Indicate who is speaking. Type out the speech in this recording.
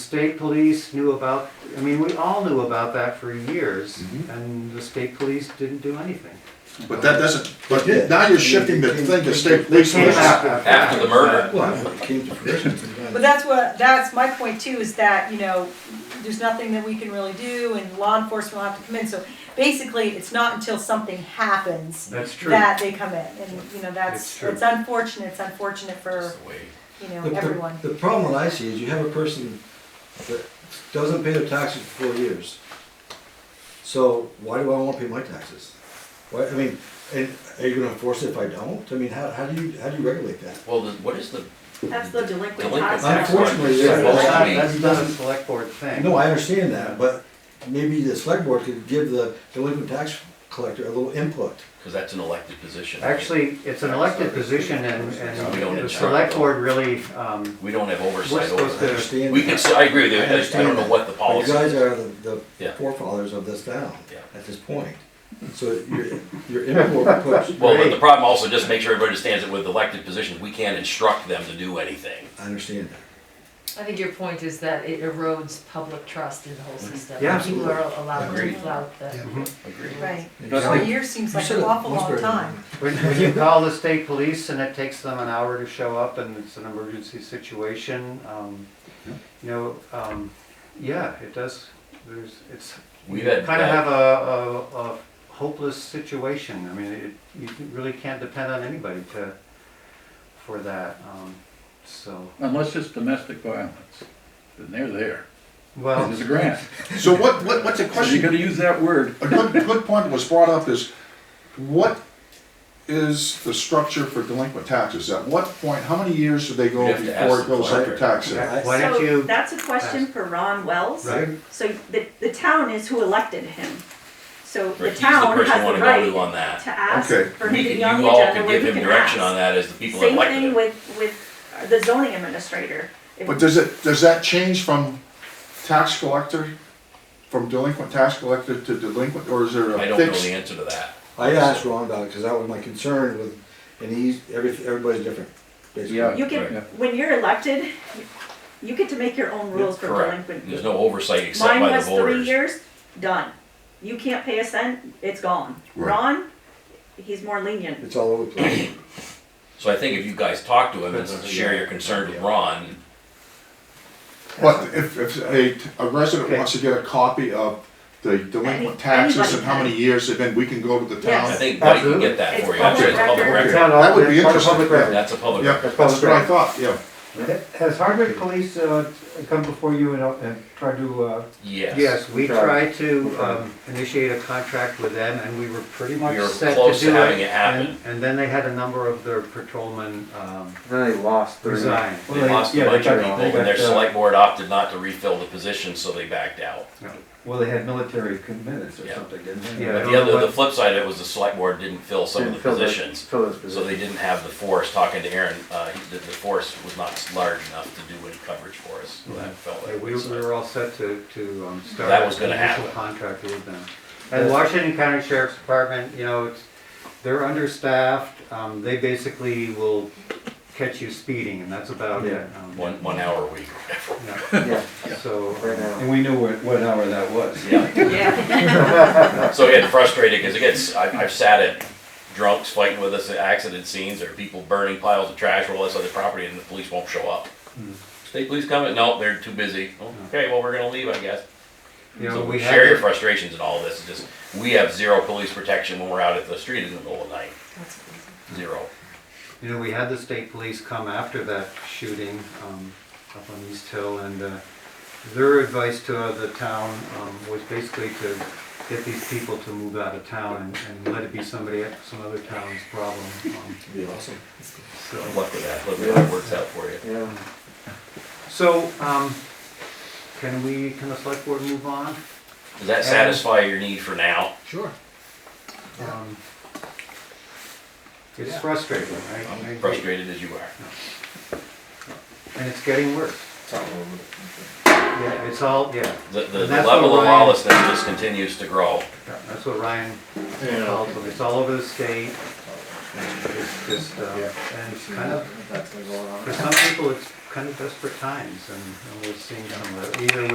Speaker 1: state police knew about, I mean, we all knew about that for years,
Speaker 2: Mm-hmm.
Speaker 1: and the state police didn't do anything.
Speaker 3: But that doesn't, but
Speaker 2: They did.
Speaker 3: now you're shifting the thing to state police.
Speaker 1: Came
Speaker 3: versus-
Speaker 1: after-
Speaker 4: after the murder.
Speaker 2: Well, it came to fruition. it's done.
Speaker 5: But that's what, that's my point too, is that, you know, there's nothing that we can really do and law enforcement will have to come in, so basically, it's not until something happens
Speaker 1: That's true.
Speaker 5: that they come in, and, you know,
Speaker 1: It's
Speaker 5: that's,
Speaker 1: true.
Speaker 5: it's unfortunate, it's unfortunate for, you know,
Speaker 2: The- the-
Speaker 5: everyone.
Speaker 2: The problem that I see is you have a person that doesn't pay their taxes for four years. So why do I wanna pay my taxes? Why, I mean, and are you gonna enforce it if I don't? I mean, how, how do you, how do you regulate that?
Speaker 4: Well, the- what is the,
Speaker 5: That's the delinquent
Speaker 4: Delinquent
Speaker 5: tax.
Speaker 4: tax.
Speaker 2: Unfortunately,
Speaker 4: Yeah,
Speaker 2: there-
Speaker 1: That's
Speaker 4: well,
Speaker 1: not,
Speaker 4: I mean-
Speaker 1: that's not a select board thing.
Speaker 2: No, I understand that, but maybe the select board could give the delinquent tax collector a little input.
Speaker 4: because that's an elected position.
Speaker 1: Actually, it's an elected position and,
Speaker 4: We don't
Speaker 1: and the
Speaker 4: insure
Speaker 1: select
Speaker 4: them.
Speaker 1: board really, um,
Speaker 4: We don't have
Speaker 1: we're
Speaker 4: oversight
Speaker 1: supposed
Speaker 4: over
Speaker 2: I
Speaker 4: it.
Speaker 1: to,
Speaker 2: understand
Speaker 4: We can,
Speaker 2: that.
Speaker 4: s- I agree with you,
Speaker 2: I
Speaker 4: I just- I don't know
Speaker 2: understand
Speaker 4: what the
Speaker 2: But
Speaker 4: policy
Speaker 2: You guys
Speaker 4: is.
Speaker 2: are the, the
Speaker 4: Yeah.
Speaker 2: forefathers of this town
Speaker 4: Yeah.
Speaker 2: at this point. So your, your input puts.
Speaker 4: Well, but the
Speaker 1: Right.
Speaker 4: problem also, just make sure everybody understands that with elected positions, we can't instruct them to do anything.
Speaker 2: I understand that.
Speaker 6: I think your point is that it erodes public trust in the whole system.
Speaker 1: Yeah,
Speaker 6: People are allowed to
Speaker 4: Agreed.
Speaker 6: flout the.
Speaker 5: Right,
Speaker 2: You
Speaker 5: four
Speaker 2: said it
Speaker 5: years seems like an awful
Speaker 2: much
Speaker 5: long
Speaker 2: better than me.
Speaker 5: time.
Speaker 1: when, when you call the state police and it takes them an hour to show up and it's an emergency situation, um, you know, um, yeah, it does, there's, it's,
Speaker 4: We've had,
Speaker 1: kind of have
Speaker 4: that-
Speaker 1: a, a, a hopeless situation. I mean, it, you really can't depend on anybody to, for that, um, so,
Speaker 7: Unless it's domestic violence, then they're there.
Speaker 1: well,
Speaker 7: There's a grant.
Speaker 3: So what, what, what's the
Speaker 7: So you
Speaker 3: question?
Speaker 7: gotta use that word.
Speaker 3: A good, good point was brought up is, what is the structure for delinquent taxes? At what point, how many years do they go
Speaker 4: You'd have to
Speaker 3: before
Speaker 4: ask
Speaker 3: it goes up
Speaker 4: the
Speaker 3: to tax?
Speaker 2: collector.
Speaker 3: sale?
Speaker 1: why don't
Speaker 8: So
Speaker 1: you,
Speaker 8: that's a question for Ron Wells.
Speaker 1: right?
Speaker 8: So the, the town is who elected him. So
Speaker 4: Rick,
Speaker 8: the
Speaker 4: he's the
Speaker 8: town
Speaker 4: person you
Speaker 8: has
Speaker 4: wanna go
Speaker 8: the
Speaker 4: to
Speaker 8: right
Speaker 4: on that.
Speaker 8: to ask
Speaker 3: Okay.
Speaker 8: for him
Speaker 4: We
Speaker 8: to
Speaker 4: can-
Speaker 8: be on
Speaker 4: you
Speaker 8: the
Speaker 4: all
Speaker 8: agenda
Speaker 4: can
Speaker 8: where
Speaker 4: give
Speaker 8: he
Speaker 4: him
Speaker 8: can
Speaker 4: direction on
Speaker 8: ask.
Speaker 4: that as the people that
Speaker 8: Same
Speaker 4: elected
Speaker 8: thing
Speaker 4: him.
Speaker 8: with, with the zoning administrator. If-
Speaker 3: But does it, does that change from tax collector, from delinquent tax collector to delinquent, or is there
Speaker 4: I
Speaker 3: a
Speaker 4: don't know the
Speaker 3: fixed?
Speaker 4: answer to that.
Speaker 2: I asked Ron about it, because that was my concern with, and he's, every, everybody's different. basically.
Speaker 7: Yeah.
Speaker 8: You can,
Speaker 7: Right.
Speaker 8: when you're elected, you get to make your own rules for
Speaker 4: Correct.
Speaker 8: delinquent.
Speaker 4: There's no oversight except
Speaker 8: Mine
Speaker 4: by the
Speaker 8: was three
Speaker 4: voters.
Speaker 8: years, done. You can't pay a cent, it's gone.
Speaker 3: Right.
Speaker 8: Ron, he's more lenient.
Speaker 2: It's all over the place.
Speaker 4: So I think if you guys talk to him and share your concerns with Ron,
Speaker 3: But if, if a, a resident
Speaker 1: Okay.
Speaker 3: wants to get a copy of the delinquent taxes and how many years they've been, we can go to the
Speaker 4: I
Speaker 3: town.
Speaker 8: Yes.
Speaker 4: think Mike can get that
Speaker 8: It's
Speaker 4: for you. I'm sure it's public
Speaker 8: public
Speaker 4: record.
Speaker 3: record. That would be interesting.
Speaker 1: Public record.
Speaker 4: That's a public
Speaker 3: Yeah,
Speaker 4: record.
Speaker 3: that's what I thought, yeah.
Speaker 9: Has Hardwick Police uh, come before you and, uh, and tried to, uh,
Speaker 4: Yes.
Speaker 1: Yes, we
Speaker 9: Try.
Speaker 1: tried to um, initiate a contract with them, and we were pretty much
Speaker 4: We were
Speaker 1: set to do it.
Speaker 4: close to having
Speaker 1: and-
Speaker 4: it happen.
Speaker 1: And then they had a number of their patrolmen um,
Speaker 9: then they lost three.
Speaker 1: resign.
Speaker 4: They lost a
Speaker 9: Yeah, they
Speaker 4: bunch of
Speaker 9: got-
Speaker 4: people,
Speaker 9: they
Speaker 4: and
Speaker 9: got,
Speaker 4: their
Speaker 9: uh,
Speaker 4: select board opted not to refill the position, so they backed out.
Speaker 9: Well, they had military commitments or
Speaker 4: Yeah.
Speaker 9: something, didn't they?
Speaker 1: Yeah. I
Speaker 4: But
Speaker 1: don't
Speaker 4: the
Speaker 1: know
Speaker 4: other,
Speaker 1: what-
Speaker 4: the flip side of it was the select board didn't fill some of
Speaker 9: Didn't
Speaker 4: the
Speaker 9: fill those-
Speaker 4: positions,
Speaker 9: Fill those
Speaker 4: so they
Speaker 9: positions.
Speaker 4: didn't have the force, talking to Aaron, uh, he- the, the force was not large enough to do any coverage for us, so that felt
Speaker 1: Yeah,
Speaker 4: like.
Speaker 1: We
Speaker 4: it was,
Speaker 1: we
Speaker 4: uh,
Speaker 1: were all set to, to um, start.
Speaker 4: That was gonna
Speaker 1: an initial
Speaker 4: happen.
Speaker 1: Contract with them. And Washington County Sheriff's Department, you know, it's, they're understaffed, um, they basically will catch you speeding, and that's about it.
Speaker 9: Yeah.
Speaker 1: Um,
Speaker 4: One, one hour a week.
Speaker 1: yeah,
Speaker 9: Yeah,
Speaker 1: So,
Speaker 9: right now.
Speaker 1: um,
Speaker 9: And we knew what, what hour that was.
Speaker 4: Yeah,
Speaker 8: Yeah,
Speaker 4: so it frustrated, because it gets, I, I've sat at drunks fighting with us at accident scenes, or people burning piles of trash or all this other property, and the police won't show up. State police coming, no, they're too busy, okay, well, we're gonna leave, I guess.
Speaker 1: you know,
Speaker 4: So
Speaker 1: we
Speaker 4: we
Speaker 1: had.
Speaker 4: share your
Speaker 1: to-
Speaker 4: frustrations and all this, it's just, we have zero police protection when we're out at the street in the middle of the night,
Speaker 6: That's crazy.
Speaker 4: zero.
Speaker 1: You know, we had the state police come after that shooting um, up on East Hill, and uh, their advice to uh, the town um, was basically to get these people to move out of town and- and let it be somebody, some other town's problem. um,
Speaker 2: It'd be awesome.
Speaker 1: so-
Speaker 4: Good luck with that, look how it works out for you.
Speaker 9: Yeah.
Speaker 1: So, um, can we, can the select board move on?
Speaker 4: Does that satisfy your need for now?
Speaker 2: Sure.
Speaker 1: Um, It's frustrating, right?
Speaker 4: I'm frustrated as you are.
Speaker 1: And it's getting worse. Yeah, it's all, yeah,
Speaker 4: The, the the
Speaker 1: And that's what
Speaker 4: level of
Speaker 1: Ryan-
Speaker 4: lawlessness just continues to grow.
Speaker 1: that's what Ryan called them. It's all over the state. It's just, uh, and it's kind of, for some people, it's kind of desperate times, and and we're seeing some of that, either